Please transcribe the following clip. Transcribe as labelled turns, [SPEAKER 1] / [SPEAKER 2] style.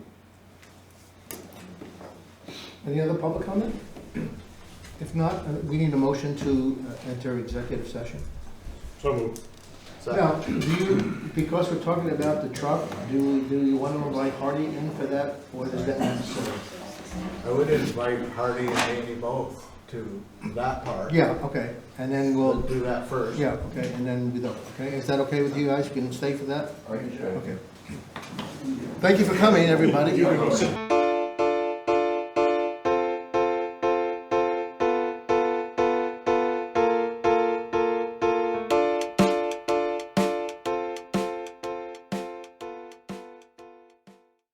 [SPEAKER 1] Any other public comment? If not, uh, we need a motion to uh, enter executive session.
[SPEAKER 2] So moved.
[SPEAKER 1] Now, do you, because we're talking about the truck, do, we- do you want to invite Hardy in for that, or is that necessary?
[SPEAKER 3] I would invite Hardy and Danny both to that part.
[SPEAKER 1] Yeah, okay, and then
[SPEAKER 3] We'll
[SPEAKER 1] we'll,
[SPEAKER 3] do that first.
[SPEAKER 1] yeah, okay, and then we don't, okay, is that okay with you guys, you can stay for that? Okay. Thank you for coming, everybody.